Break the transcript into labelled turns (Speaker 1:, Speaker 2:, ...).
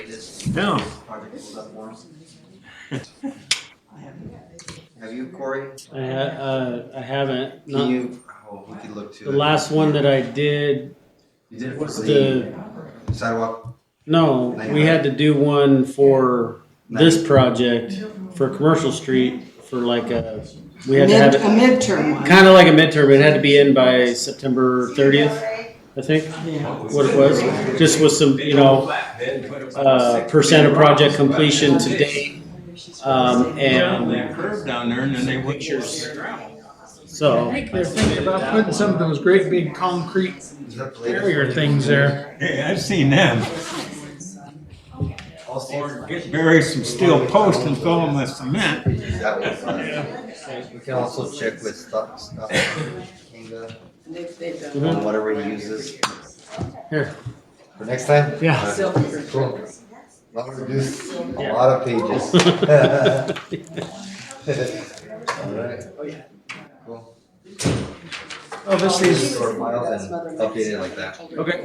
Speaker 1: this
Speaker 2: No.
Speaker 1: project was up for us.
Speaker 3: I have
Speaker 1: Have you, Corey?
Speaker 4: I, ha- uh, I haven't.
Speaker 1: Can
Speaker 4: Not,
Speaker 1: you, oh, we could look to.
Speaker 4: the
Speaker 1: it.
Speaker 4: last one that I did
Speaker 1: You did it for
Speaker 4: was
Speaker 1: the
Speaker 4: the
Speaker 1: sidewalk.
Speaker 4: no. We had to do one for this project for commercial street for like a. We had to have
Speaker 3: Mid, a
Speaker 4: it
Speaker 3: midterm one.
Speaker 4: kind of like a midterm. It had to be in by September 30th, I think.
Speaker 3: Yeah.
Speaker 4: What it was just with some you know uh, percent of project completion to date. Um, and
Speaker 5: curve down there and then they would.
Speaker 4: so
Speaker 6: I think they're thinking about putting some of those great big concrete
Speaker 1: Is that the latest?
Speaker 6: barrier things there.
Speaker 5: Hey, I've seen them.
Speaker 1: All
Speaker 5: Or
Speaker 1: states.
Speaker 5: get bury some steel posts and fill them with cement.
Speaker 1: Is that what it's on? We can also check with stuff, stuff, Kinga, on Mhm. whatever he uses.
Speaker 4: Here.
Speaker 1: For next time?
Speaker 4: Yeah.
Speaker 1: Cool. Well, we reduced a
Speaker 4: Yeah.
Speaker 1: lot of pages. Alright. Cool.
Speaker 6: Oh, this is,
Speaker 1: Store files and update it like that.
Speaker 6: okay.